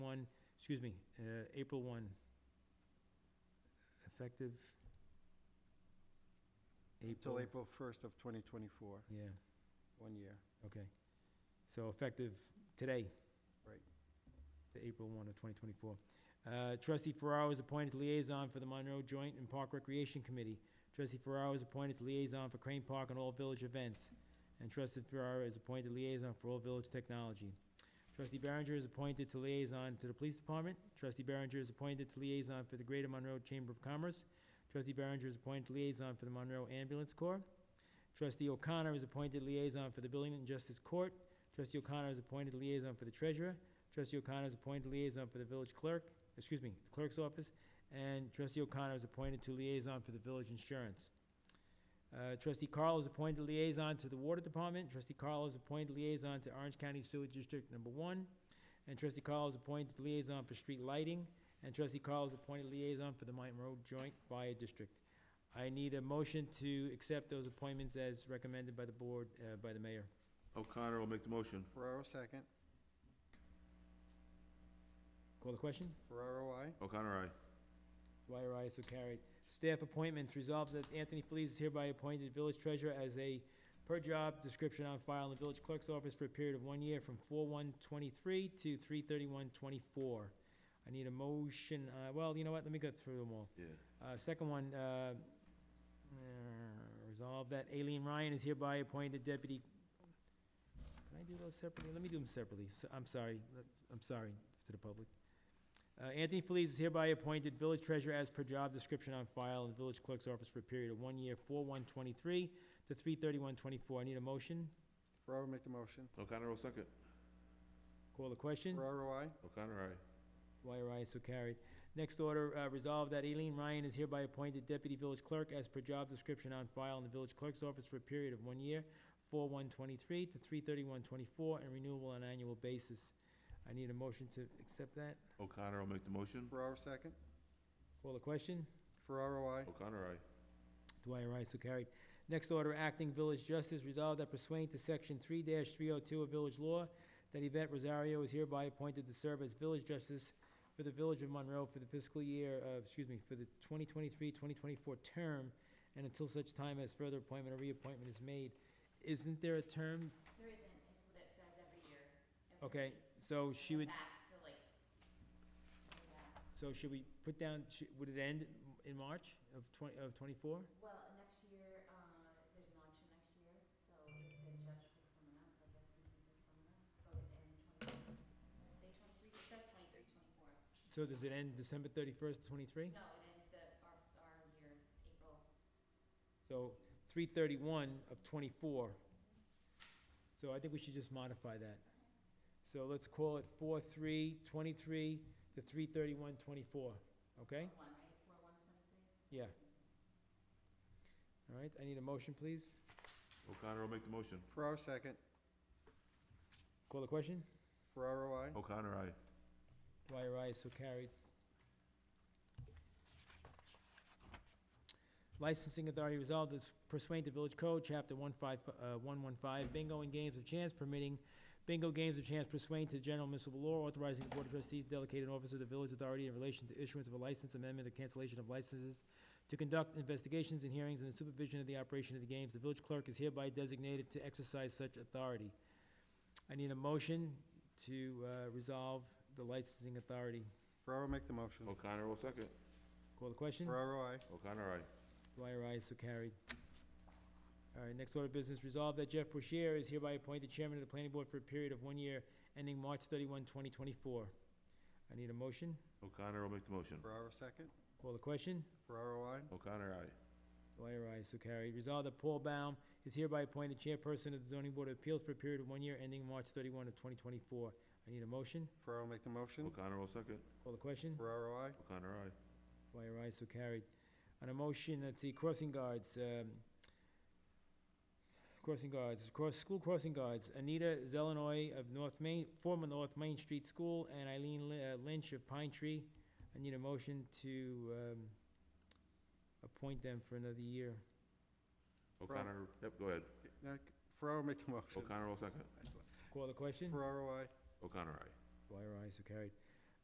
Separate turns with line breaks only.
excuse me, uh, April one, effective April,
Till April 1st of 2024,
yeah,
one year.
okay. So effective today.
Right.
To April one of twenty twenty-four. Uh, trustee Ferraro is appointed liaison for the Monroe Joint and Park Recreation Committee. Trustee Ferraro is appointed liaison for Crane Park and all village events. And trustee Ferraro is appointed liaison for all village technology. Trustee Barringer is appointed to liaison to the police department. Trustee Barringer is appointed to liaison for the Greater Monroe Chamber of Commerce. Trustee Barringer is appointed liaison for the Monroe Ambulance Corps. Trustee O'Connor is appointed liaison for the Building and Justice Court. Trustee O'Connor is appointed liaison for the treasurer. Trustee O'Connor is appointed liaison for the village clerk, excuse me, the clerk's office. And trustee O'Connor is appointed to liaison for the village insurance. Uh, Trustee Carl is appointed liaison to the water department. Trustee Carl is appointed liaison to Orange County Sewer District Number One. And trustee Carl is appointed liaison for street lighting. And trustee Carl is appointed liaison for the Monroe Joint Fire District. I need a motion to accept those appointments as recommended by the board, uh, by the mayor.
O'Connor will make the motion.
Ferraro, second.
Call the question?
Ferraro, I.
O'Connor, aye.
Dwyer, aye, so carried. Staff appointments, resolved that Anthony Feliz is hereby appointed village treasurer as a per-job description on file in the village clerk's office for a period of one year from four one twenty-three to three thirty-one twenty-four. I need a motion, uh, well, you know what, let me go through them all.
Yeah.
Uh, second one, uh, uh, resolve that Aileen Ryan is hereby appointed deputy. Can I do those separately? Let me do them separately. S- I'm sorry, Let- I'm sorry to the public. Uh, Anthony Feliz is hereby appointed village treasurer as per job description on file in the village clerk's office for a period of one year, four one twenty-three to three thirty-one twenty-four. I need a motion.
Ferraro, make the motion.
O'Connor will second.
Call the question.
Ferraro, I.
O'Connor, aye.
Dwyer, aye, so carried. Next order, uh, resolved that Aileen Ryan is hereby appointed deputy village clerk as per job description on file in the village clerk's office for a period of one year, four one twenty-three to three thirty-one twenty-four, and renewable on annual basis. I need a motion to accept that.
O'Connor will make the motion.
Ferraro, second.
Call the question.
Ferraro, I.
O'Connor, aye.
Dwyer, aye, so carried. Next order, acting village justice, resolved that pursuant to section three three oh two of village law, that Yvette Rosario is hereby appointed to serve as village justice for the village of Monroe for the fiscal year, uh, excuse me, for the 2023-2024 term, and until such time as further appointment or reappointment is made. Isn't there a term?
There isn't, it's what it says every year. and
Okay, so she
we're
would,
Back to like, yeah.
so should we put down, sh- would it end in March of twenty, of twenty-four?
well, next year, uh, there's an election next year, so if the judge picks someone else, I guess he can pick someone else, but it ends twenty, does it say twenty-three, it says twenty-three, twenty-four.
So does it end December thirty-first, twenty-three?
No, it ends the, our, our year, April.
So three thirty-one of twenty-four. So I think we should just modify that. So let's call it four-three, twenty-three to three thirty-one, twenty-four, okay?
One, right, four, one, twenty-three?
Yeah. All right, I need a motion, please.
O'Connor will make the motion.
Ferraro, second.
Call the question?
Ferraro, I.
O'Connor, aye.
Dwyer, aye, so carried. Licensing authority resolved that pursuant to Village Code, Chapter 115, uh, 115, bingo and games of chance permitting bingo games of chance pursuant to general municipal law authorizing the Board of Trustees delegated office of the village authority in relation to issuance of a license amendment or cancellation of licenses to conduct investigations and hearings and the supervision of the operation of the games. The village clerk is hereby designated to exercise such authority. I need a motion to uh, resolve the licensing authority.
Ferraro, make the motion.
O'Connor will second.
Call the question?
Ferraro, I.
O'Connor, aye.
Dwyer, aye, so carried. All right, next order of business, resolved that Jeff Bouchier is hereby appointed chairman of the planning board for a period of one year ending March 31, 2024. I need a motion.
O'Connor will make the motion.
Ferraro, second.
Call the question?
Ferraro, I.
O'Connor, aye.
Dwyer, aye, so carried. Resolved that Paul Baum is hereby appointed chairperson of the zoning board of appeals for a period of one year ending March 31 of 2024. I need a motion.
Ferraro, make the motion.
O'Connor will second.
Call the question?
Ferraro, I.
O'Connor, aye.
Dwyer, aye, so carried. On a motion, let's see, crossing guards, um, crossing guards, cross, school crossing guards, Anita Zelenoy of North Main, former North Main Street School, and Eileen Li- uh, Lynch of Pine Tree. I need a motion to, um, appoint them for another year.
O'Connor, yep, go ahead.
Now, Ferraro, make the motion.
O'Connor will second.
Call the question?
Ferraro, I.
O'Connor, aye.
Dwyer, aye, so carried.